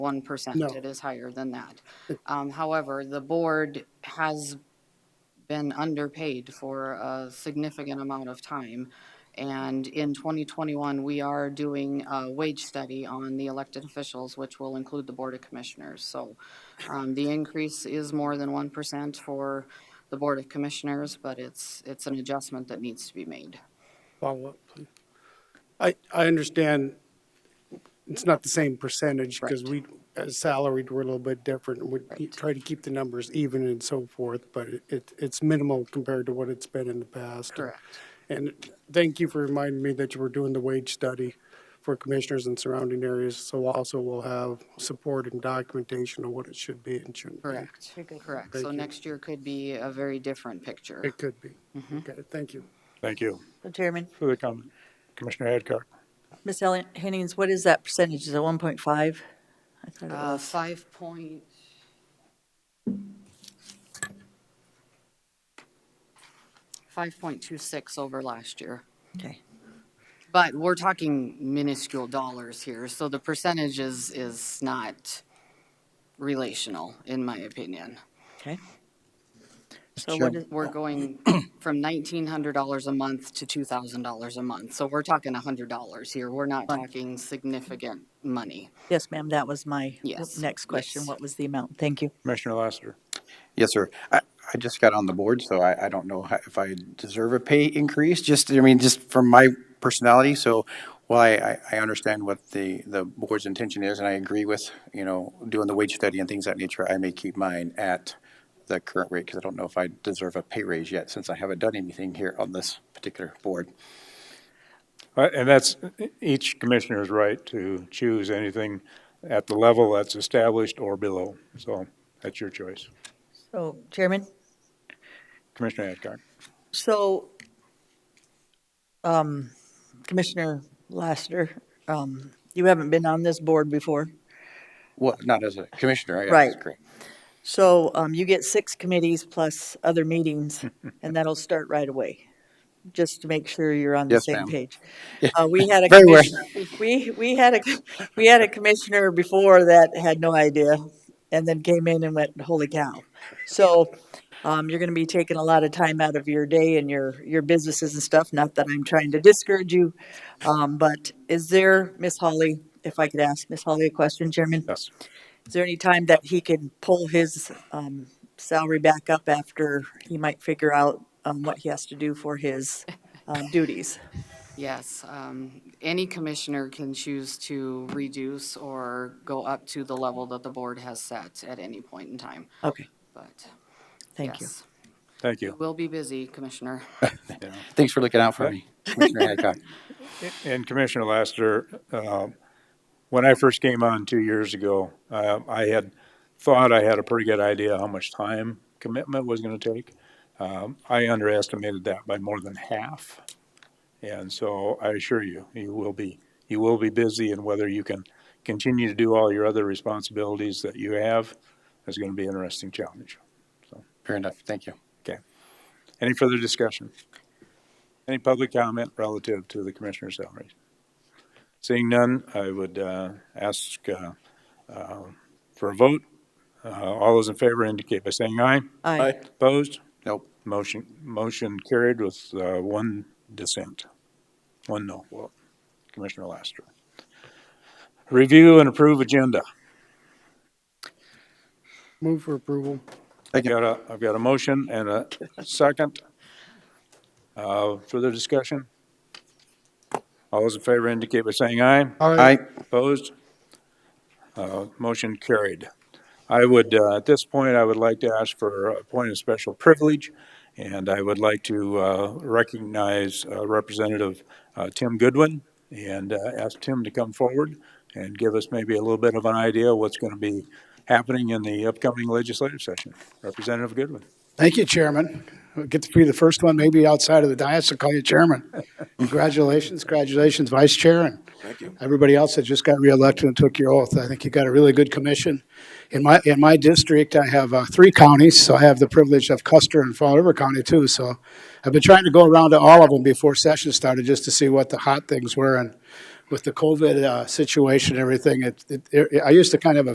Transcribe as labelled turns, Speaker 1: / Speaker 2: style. Speaker 1: one percent.
Speaker 2: No.
Speaker 1: It is higher than that. Um, however, the board has been underpaid for a significant amount of time. And in twenty twenty-one, we are doing a wage study on the elected officials, which will include the Board of Commissioners. So, um, the increase is more than one percent for the Board of Commissioners, but it's, it's an adjustment that needs to be made.
Speaker 2: Follow up, please. I, I understand it's not the same percentage because we, as salaried, we're a little bit different. We
Speaker 1: Right.
Speaker 2: try to keep the numbers even and so forth, but it, it's minimal compared to what it's been in the past.
Speaker 1: Correct.
Speaker 2: And thank you for reminding me that you were doing the wage study for commissioners in surrounding areas. So also we'll have support and documentation of what it should be and shouldn't be.
Speaker 1: Correct, correct.
Speaker 2: Thank
Speaker 1: So
Speaker 2: you.
Speaker 1: next year could be a very different picture.
Speaker 2: It could be.
Speaker 1: Mm-hmm.
Speaker 2: Okay, thank you.
Speaker 3: Thank you
Speaker 4: So Chairman,
Speaker 3: for the comment. Commissioner Hadcock.
Speaker 4: Ms. Ellen Hennings, what is that percentage? Is it one point five? I thought it
Speaker 1: Uh,
Speaker 4: was.
Speaker 1: five point, five point two six over last year.
Speaker 4: Okay.
Speaker 1: But we're talking minuscule dollars here, so the percentage is, is not relational, in my opinion.
Speaker 4: Okay. So what is,
Speaker 1: We're going from nineteen hundred dollars a month to two thousand dollars a month, so we're talking a hundred dollars here. We're not talking significant money.
Speaker 4: yes, ma'am, that was my
Speaker 1: Yes,
Speaker 4: next question.
Speaker 1: yes.
Speaker 4: What was the amount? Thank you.
Speaker 3: Commissioner Lassiter.
Speaker 5: Yes, sir. I, I just got on the board, so I, I don't know how- if I deserve a pay increase, just, I mean, just from my personality. So while I, I, I understand what the, the board's intention is, and I agree with, you know, doing the wage study and things of that nature, I may keep mine at the current rate, because I don't know if I deserve a pay raise yet, since I haven't done anything here on this particular board.
Speaker 3: Uh, And that's, each commissioner's right to choose anything at the level that's established or below. So that's your choice.
Speaker 4: So Chairman,
Speaker 3: Commissioner Hadcock.
Speaker 4: so, um, Commissioner Lassiter, um, you haven't been on this board before.
Speaker 5: Well, not as a commissioner, I
Speaker 4: Right.
Speaker 5: guess. Right.
Speaker 4: So, um, you get six committees plus other meetings and that'll start right away. Just to make sure you're on the
Speaker 5: Yes,
Speaker 4: same
Speaker 5: ma'am.
Speaker 4: page. Uh, we had a
Speaker 5: Very well.
Speaker 4: commissioner, we, we had a, we had a commissioner before that had no idea and then came in and went, holy cow. So, um, you're gonna be taking a lot of time out of your day and your, your businesses and stuff. Not that I'm trying to discourage you. Um, but is there, Miss Holly, if I could ask Miss Holly a question, Chairman?
Speaker 3: Yes.
Speaker 4: Is there any time that he can pull his um, salary back up after he might figure out um, what he has to do for his um, duties?
Speaker 1: Yes, um, any commissioner can choose to reduce or go up to the level that the board has set at any point in time,
Speaker 4: Okay,
Speaker 1: but
Speaker 4: thank you.
Speaker 1: yes.
Speaker 3: Thank you.
Speaker 1: We'll be busy, Commissioner.
Speaker 5: Thanks for looking out for me, Commissioner Hadcock.
Speaker 3: And Commissioner Lassiter, um, when I first came on two years ago, um, I had thought I had a pretty good idea how much time commitment was going to take. Um, I underestimated that by more than half. And so I assure you, you will be, you will be busy and whether you can continue to do all your other responsibilities that you have is going to be an interesting challenge.
Speaker 5: Fair enough, thank you.
Speaker 3: Any further discussion? Any public comment relative to the commissioner's salaries? Seeing none, I would uh, ask uh, uh, for a vote. Uh, All those in favor indicate by saying aye.
Speaker 4: Aye.
Speaker 3: Opposed?
Speaker 5: Nope.
Speaker 3: Motion, motion carried with uh, one dissent, one no vote. Commissioner Laster. Review and approve agenda.
Speaker 2: Move for approval.
Speaker 3: I've got a, I've got a motion and a second. Uh, Further discussion? All those in favor indicate by saying aye.
Speaker 2: All right.
Speaker 5: Aye.
Speaker 3: Opposed? Uh, Motion carried. I would, uh, at this point, I would like to ask for a point of special privilege, and I would like to uh, recognize uh, Representative uh, Tim Goodwin and uh, ask Tim to come forward and give us maybe a little bit of an idea what's going to be happening in the upcoming legislative session. Representative Goodwin.
Speaker 6: Thank you, Chairman. I Get to be the first one, maybe outside of the dais, to call you Chairman. Congratulations, congratulations, Vice Chair, and everybody else that just got reelected and took your oath. I think you got a really good commission. In my, in my district, I have uh, three counties, so I have the privilege of Custer and Fall River County too. So I've been trying to go around to all of them before session started, just to see what the hot things were. And with the COVID uh, situation and everything, it, it- I used to kind of have a